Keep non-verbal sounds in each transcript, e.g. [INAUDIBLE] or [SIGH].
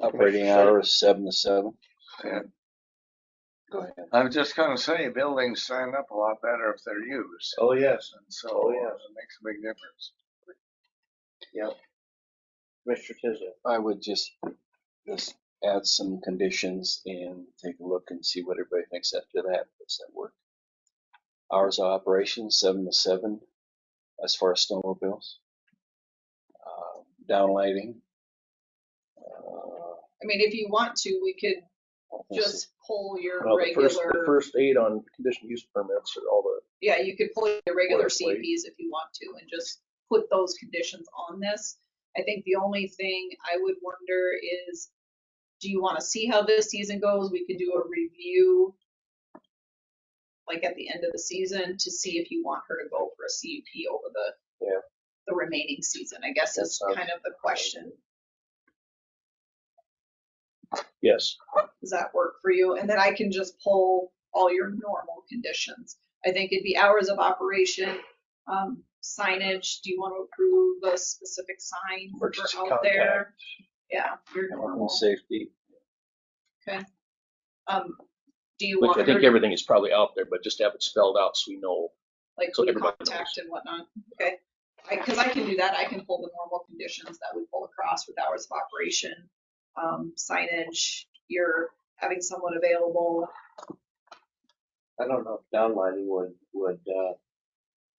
Operating hours seven to seven. Yeah. Go ahead. I was just gonna say, buildings stand up a lot better if they're used, Oh, yes. and so Oh, uh, yeah. it makes a big difference. Mr. Tisdale. I would just, just add some conditions and take a look and see what everybody thinks after that. Does that work? Hours of operation, seven to seven, as far as snowmobiles. Uh, Downlighting. Uh, I mean, if you want to, we could I think so. just pull your Well, the first, the regular, first eight on conditional use permits are all the, yeah, you could pull your regular Boilerplate. CUPs if you want to and just put those conditions on this. I think the only thing I would wonder is, do you want to see how this season goes? We could do a review like at the end of the season to see if you want her to go for a CUP over the Yeah. the remaining season, I guess is That sounds- kind of the question. yes. Does that work for you? And then I can just pull all your normal conditions. I think it'd be hours of operation, um, signage. Do you want to approve the specific sign for Emergency out there? Yeah, your Health and normal. safety. Um, do you Which want I think her, everything is probably out there, but just have it spelled out so we know. like so who to everybody contact and whatnot? Okay. I, cause I can do that. I can pull the normal conditions that we pull across with hours of operation, um, signage, you're having someone available. I don't know if downlighting would, would, uh,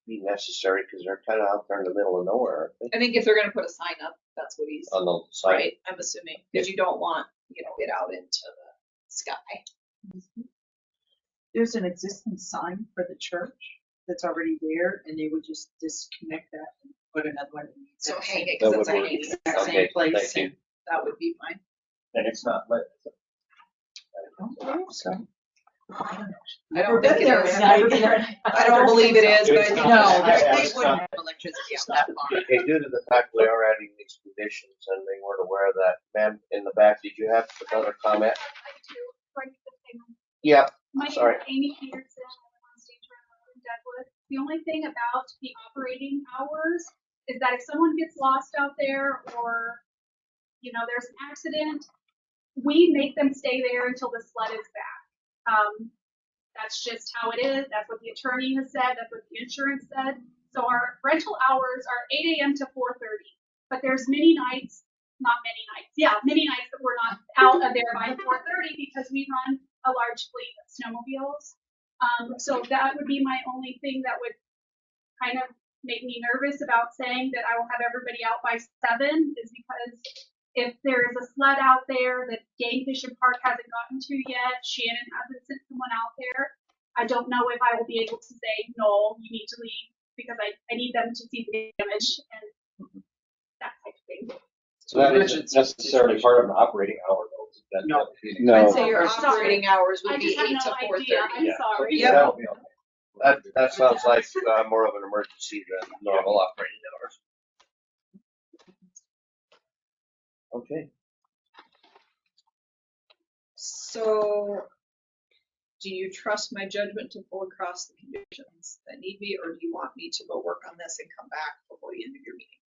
be necessary, cause they're kinda out there in the middle of nowhere, I think, I think if they're gonna put a sign up, that's what he's. on the side. Right, I'm assuming, because you don't want, you know, it out into the sky. there's an existing sign for the church that's already there, and they would just disconnect that and put another one. in the So exact hang same- it, That because it's a would work. hanging exact Okay, same place, thank and that would be fine. And it's not lit. I don't believe so. I don't know. I don't Never think been it there, is. and I've never been there. I don't believe it is, but I It's think not. no, they- It's they wouldn't have electricity out that far. Okay, due to the fact we are adding these conditions and they weren't aware of that, ma'am, in the back, did you have another comment? I do, like the thing. Yeah, My name Sorry. is Amy Peterson, I live on State Road in Deadwood. The only thing about the operating hours is that if someone gets lost out there or, you know, there's an accident, we make them stay there until the sled is back. Um, that's just how it is. That's what the attorney has said. That's what the insurance said. So our rental hours are eight AM to four thirty, but there's many nights, not many nights, yeah, many nights that we're not out of there by four thirty because we run a large fleet of snowmobiles. Um, so that would be my only thing that would kind of make me nervous about saying that I will have everybody out by seven is because if there is a sled out there that Game Fish and Park hasn't gotten to yet, Shannon hasn't sent someone out there, I don't know if I will be able to say, no, you need to leave because I, I need them to see the damage and that type of thing. so that isn't necessarily part of an operating hour though. No. I'd No, say your I'm sorry. operating hours I would be just have eight to no four idea, thirty. I'm sorry. Yeah. That'll be okay. That, that sounds like, uh, more of an emergency than normal operating hours. Okay. So, do you trust my judgment to pull across the conditions that need be, or do you want me to go work on this and come back before the end of your meeting?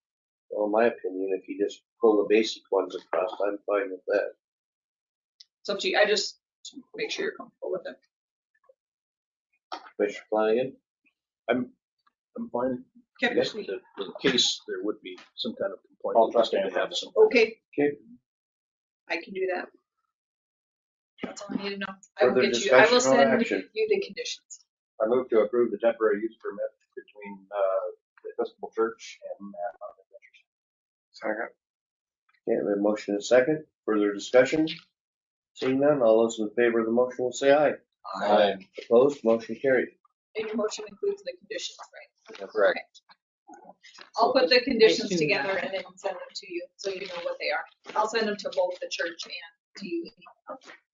Well, in my opinion, if you just pull the basic ones across, I'm fine with that. It's up to you, I just to make sure you're comfortable with it. Commissioner Flanagan? I'm, I'm fine. Okay. Just that In case there would be some kind of complaint. I'll we just need to understand. have some- Okay. Okay. I can do that. That's all I need to know. I will Further get you, I will discussion or send action? you the conditions. I move to approve the temporary use permit between, uh, the Episcopal Church and Mad Mountain Adventures. Second, Okay, we have a motion and a second. Further discussion? Seeing none, all those in favor of the motion will say aye. I, Opposed, motion carried. And your motion includes the conditions, right? correct. I'll put the conditions Thank you. together and then send them to you, so you know what they are. I'll send them to both the church and to you.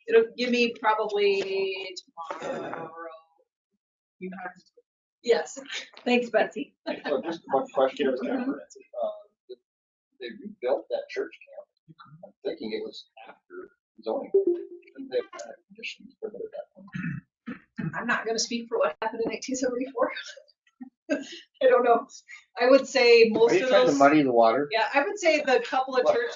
It'll give me probably tomorrow. You have to Yes, thanks Betsy. So just one question. Uh, they rebuilt that church camp. I'm thinking it was after zoning. Didn't they have conditions for that? I'm not gonna speak for what happened in nineteen seventy-four. [LAUGHS] I don't know. I would say Are most you of trying to those, muddy the water? yeah, I would say the couple of What? church